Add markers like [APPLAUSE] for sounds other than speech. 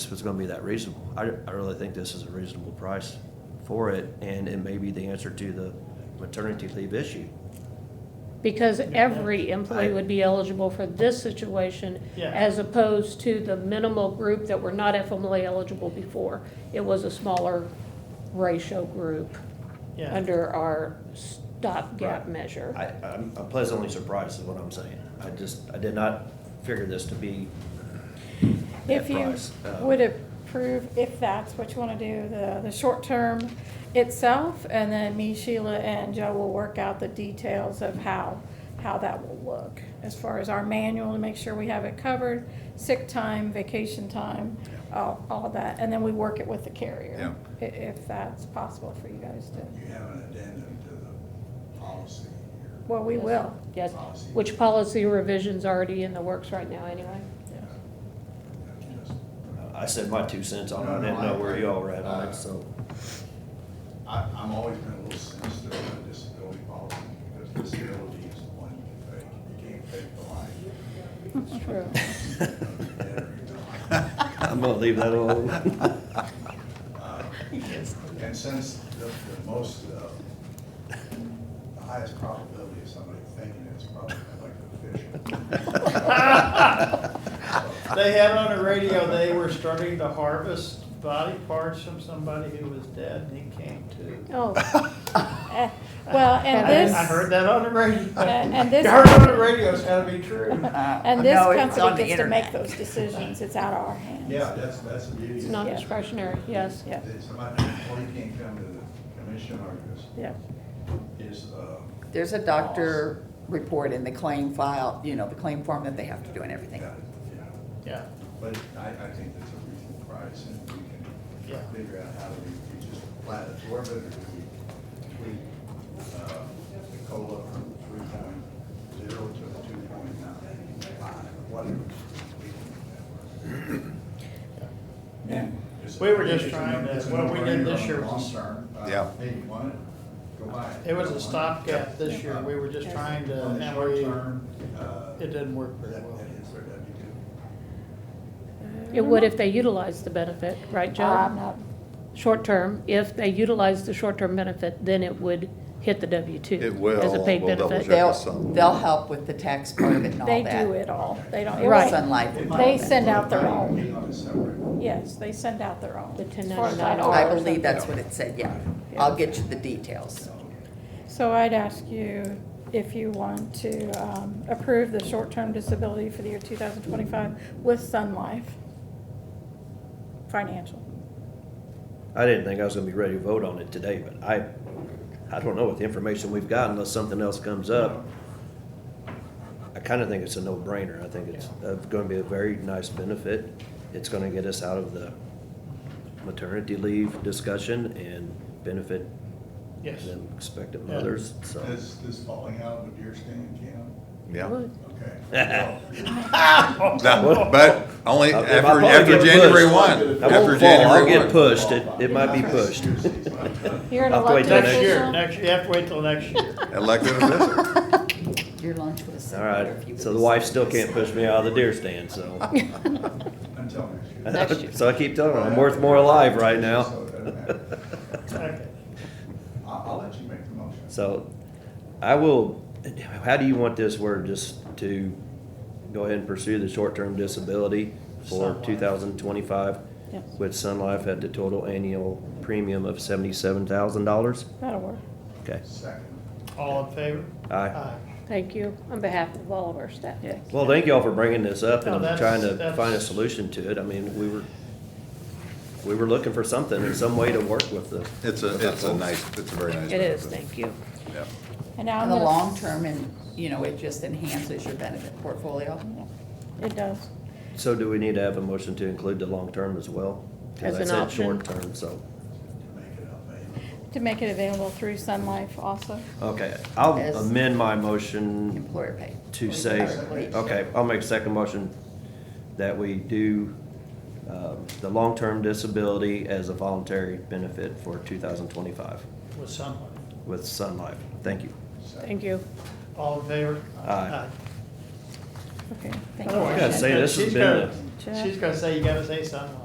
if it's gonna be that reasonable. I, I really think this is a reasonable price for it, and it may be the answer to the maternity leave issue. Because every I- employee would be eligible for this situation Yeah. as opposed to the minimal group that were not FMLA eligible before. It was a smaller ratio group Yeah. under our stopgap Right. measure. I, I'm I'm pleasantly surprised is what I'm saying. I just, I did not figure this to be that If you price. Uh, would approve, if that's what you want to do, the, the short term itself, and then me, Sheila, and Joe will work out the details of how, how that will look. As far as our manual, to make sure we have it covered, sick time, vacation time, all, all of that, and then we work it with the carrier. i- If that's possible for you guys to, You have an addendum to the policy here. well, we will. Yes, which policy revision's already in the works right now anyway. That's just- I said my two cents on it. No, I no, didn't know I- where y'all were at on uh, it, so. [LAUGHS] I, I'm always been a little sinister on disability policy because disability is the one you can fake. You can't fake the life. It's true. There you go. I'm gonna leave that alone. Uh, And since the, the most, uh, the highest probability of somebody thinking it's probably like a [LAUGHS] fish. They had on the radio, they were starting to harvest body parts from somebody who was dead and he came to. Oh, [LAUGHS] Eh, Well, and I- this. eh, I heard that on the radio. And [LAUGHS] and I this. Uh, heard it on the radio, it's gotta be [LAUGHS] true. Uh, And this company gets to make those decisions, it's out of our hands. Yeah, that's, that's the beauty. it's of it. [LAUGHS] not discretionary, yes. Yeah, That Somebody, before you can't come to the commission or yeah. this, is, uh, There's a doctor report in the claim file, you know, the claim form that they have to do and everything. yeah, yeah. Yeah, But I, I think that's a reasonable price, and we Yeah. can figure out how we, we just flat absorb it, or do we tweak, uh, the COLA from three point zero to two point nine five, whatever. We can make that work. And it's- We were just it's a trying no- to- it's a what we did this no-brainer year on the was- Long term. Uh, Yeah. Hey, you want it, go buy it. it was Don't a want it? stopgap this year, we were just trying to, On the and short we, term, uh, it didn't work that, very that well. is where that'd be good. It would if they utilized the benefit, right, Joe? Um, I'm not, short-term, if they utilize the short-term benefit, then it would hit the W-2. It will. As a paid We'll double benefit. check. They'll, us some. they'll help with the tax part of it and all they that. do it all, they don't. it Right. was- Sun Life would do They that. send out their Might own, be on a separate yes, they send out their own. The as far as $10.99 know, all I or believe that's something. what it said, yeah. I'll get you the details. So I'd ask you if you want to um, approve the short-term disability for the year 2025 with Sun Life Financial. I didn't think I was gonna be ready to vote on it today, but I, I don't know with the information we've got unless something else comes up. I kinda think it's a no-brainer. I think it's uh, gonna be a very nice benefit. It's gonna get us out of the maternity leave discussion and benefit yes. them expectant Yeah. mothers, so. Is this falling out of a deer stand camp? Yeah. Okay. [LAUGHS] No, But only If I after, probably after get January pushed. one, I after won't fall, I'll January get one. pushed. It, it might be pushed. You're [LAUGHS] an I'll have to wait till elected Next next year, official. next, you have to wait till next year. Elected [LAUGHS] official. Your lunch was. All similar if you right, so would've the wife said still this. can't push me out of the deer stand, so. [LAUGHS] Until next year. Next year. So I keep telling her, I'm worth more alive right now. [LAUGHS] So it doesn't matter. Okay. I'll, I'll let you make the motion. So I will, how do you want this word, just to go ahead and pursue the short-term disability Sun for Life. two thousand twenty-five? Yes. With Sun Life at the total annual premium of seventy-seven thousand dollars? That'll work. Okay. Second. All in favor? Aye. Aye. Thank you, on behalf of all of our staff. Yes. Well, thank y'all for bringing this up No, and Oh, that's- trying to find a that's- solution to it. I mean, we were, we were looking for something, and some way to work with the. It's a, it's a nice, it's a very nice. It is, benefit. thank you. Yeah. And now I'm In the gonna- long term and, you know, it just enhances your benefit portfolio. Hmm. It does. So do we need to have a motion to include the long-term as well? 'Cause As I an said option. Short-term, so, Make it up, babe. To make it available through Sun Life also. okay, I'll As- amend my motion Employer paid. to say, Employee- okay, I'll make a second motion that we do, um, the long-term disability as a voluntary benefit for two thousand twenty-five With someone. with Sun Life. Thank you. Thank you. All in favor? Aye. Okay, thank you. Thank you. Oh, I gotta say, this has She's been a. gonna- She's gonna say, you gotta say something.